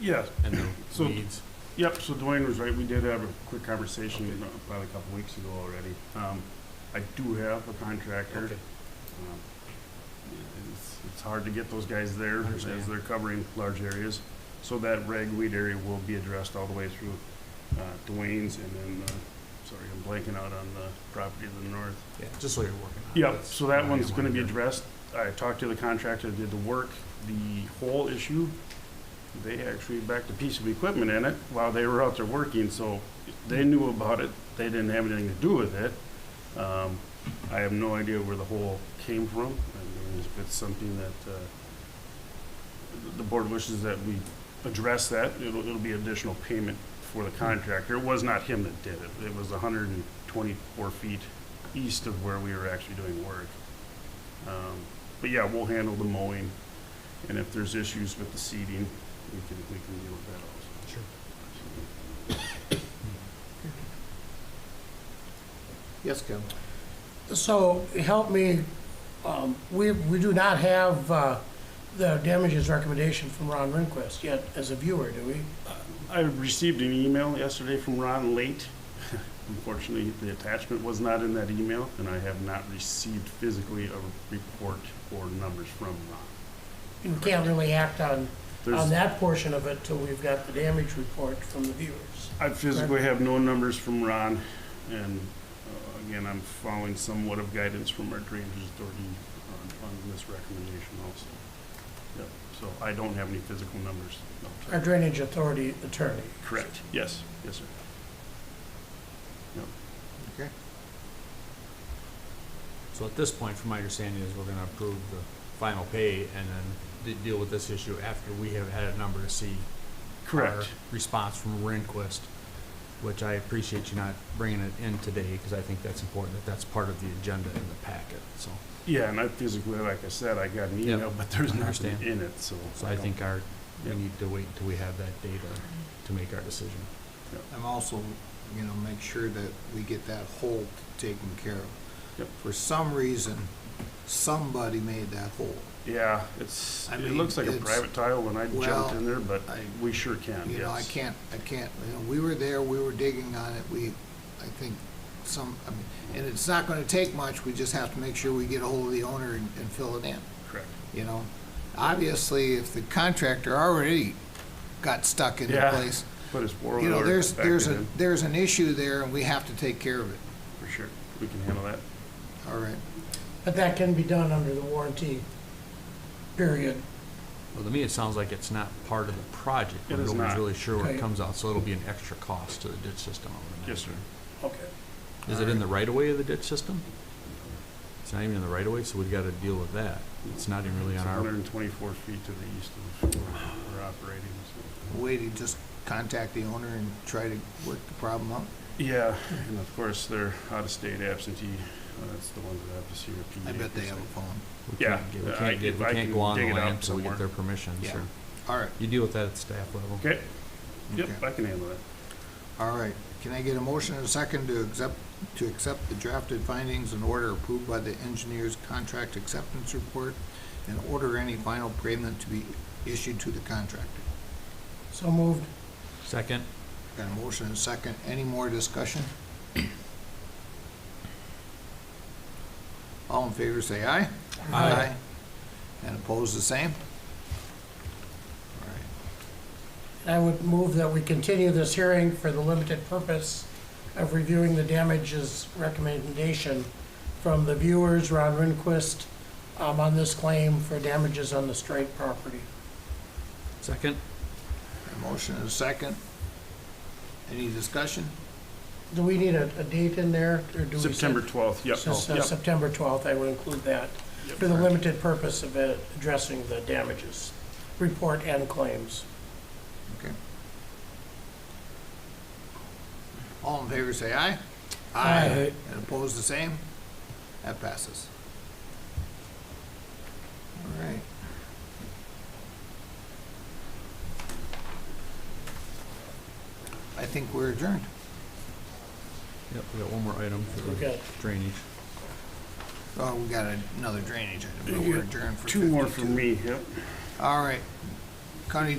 Yeah, and the So- needs. yep, so Dwayne was right, we did have a quick conversation you know, about a couple weeks ago already. Um, I do have a contractor. Okay. Um, It's, it's hard to get those guys there as Understand. they're covering large areas. So that ragweed area will be addressed all the way through uh, Dwayne's and then, uh, sorry, I'm blanking out on the property to the north. Yeah, just so you're working on. it. Yep, That's so that what I one's gonna be wanted to- addressed. I talked to the contractor, that did the work, the whole issue. They actually backed a piece of equipment in it while they were out there working, so they knew about it. They didn't have anything to do with it. Um, I have no idea where the hole came from. I mean, if it's something that, uh, the board wishes that we address that, it'll, it'll be additional payment for the contractor. It was not him that did it. It was hundred and twenty-four feet east of where we were actually doing work. Um, But yeah, we'll handle the mowing, and if there's issues with the seeding, we can, we can deal with that also. Sure. Yes, Ken. So help me, um, we, we do not have uh, the damages recommendation from Ron Rehnquist yet as a viewer, do we? I received an email yesterday from Ron late. Unfortunately, the attachment was not in that email, and I have not received physically a report or numbers from Ron. You can't really act on, on There's, that portion of it till we've got the damage report from the viewers. I physically have no numbers from Ron, and uh, again, I'm following somewhat of guidance from our drainage authority on, on this recommendation also. Yep, so I don't have any physical numbers. No, sorry. Our drainage authority attorney. Correct, yes, yes, sir. So at this point, from my understanding, is we're gonna approve the final pay and then de- deal with this issue after we have had a number to see. our Correct, Response from Rehnquist, which I appreciate you not bringing it in today, because I think that's important, that that's part of the agenda in the packet, so. yeah, and I physically, like I said, I got an Yep, email, but there's nothing understand. in it, so. So I don't- think our, we Yep. need to wait until we have that data to make our decision. I'm also, you know, make sure that we get that hole taken care of. Yep. For some reason, somebody made that hole. Yeah, it's, I it mean, looks like a it's- private tile when I well, jumped in there, but I- we sure can, You know, Um, I yes. can't, I can't, you know, we were there, we were digging on it, we, I think some, I mean, and it's not gonna take much, we just have to make sure we get a hold of the owner and, and fill it in, Correct, you know? Obviously, if the contractor already got stuck in the Yeah. place, but it's four you know, wheeler there's, back there's a, in, there's an issue there and we have to take care of it, For sure, we can handle that. all right? But that can be done under the warranty period. Well, to me, it sounds like it's not part of the project. It is Nobody's not. really sure where it Right. comes out, so it'll be an extra cost to the ditch system. I would Yes, sir. imagine. Okay. Is it in the right of way of the ditch system? It's not even in the right of way, so we've got to deal with that. It's not even really It's on our, hundred and twenty-four feet to the east of where we're operating, so. way to just contact the owner and try to work the problem out. Yeah, and of course, they're out-of-state absentee, uh, that's the ones that have to see repeat. I bet they have a phone. we Yeah, can't get, we I can't get, can- we I can't can go on the dig it up land until we get somewhere. their permission, Yeah. sure. All right, You deal with that at staff level. Okay, yep, Okay. I can handle that. all right. Can I get a motion and a second to accept, to accept the drafted findings and order approved by the engineer's contract acceptance report and order any final payment to be issued to the contractor? So moved. Second, Got a motion and a second. Any more discussion? All in favor, say aye. Aye. And opposed, the same? All right. And I would move that we continue this hearing for the limited purpose of reviewing the damages recommendation from the viewers, Ron Rehnquist, um, on this claim for damages on the Straight property. second, A motion and a second. Any discussion? Do we need a, a date in there, or do we? say- September twelfth, yep, Oh, So- so yep, September twelfth, I would include that, Yep. for the limited purpose of uh, addressing the damages, report and claims. Okay. All in favor, say aye. Aye. And opposed, the same? That passes. All right. I think we're adjourned. yep, we got one more item for the Okay. drainage. Oh, we got another drainage item, but we're adjourned for two more 52. from me, yep. All right. County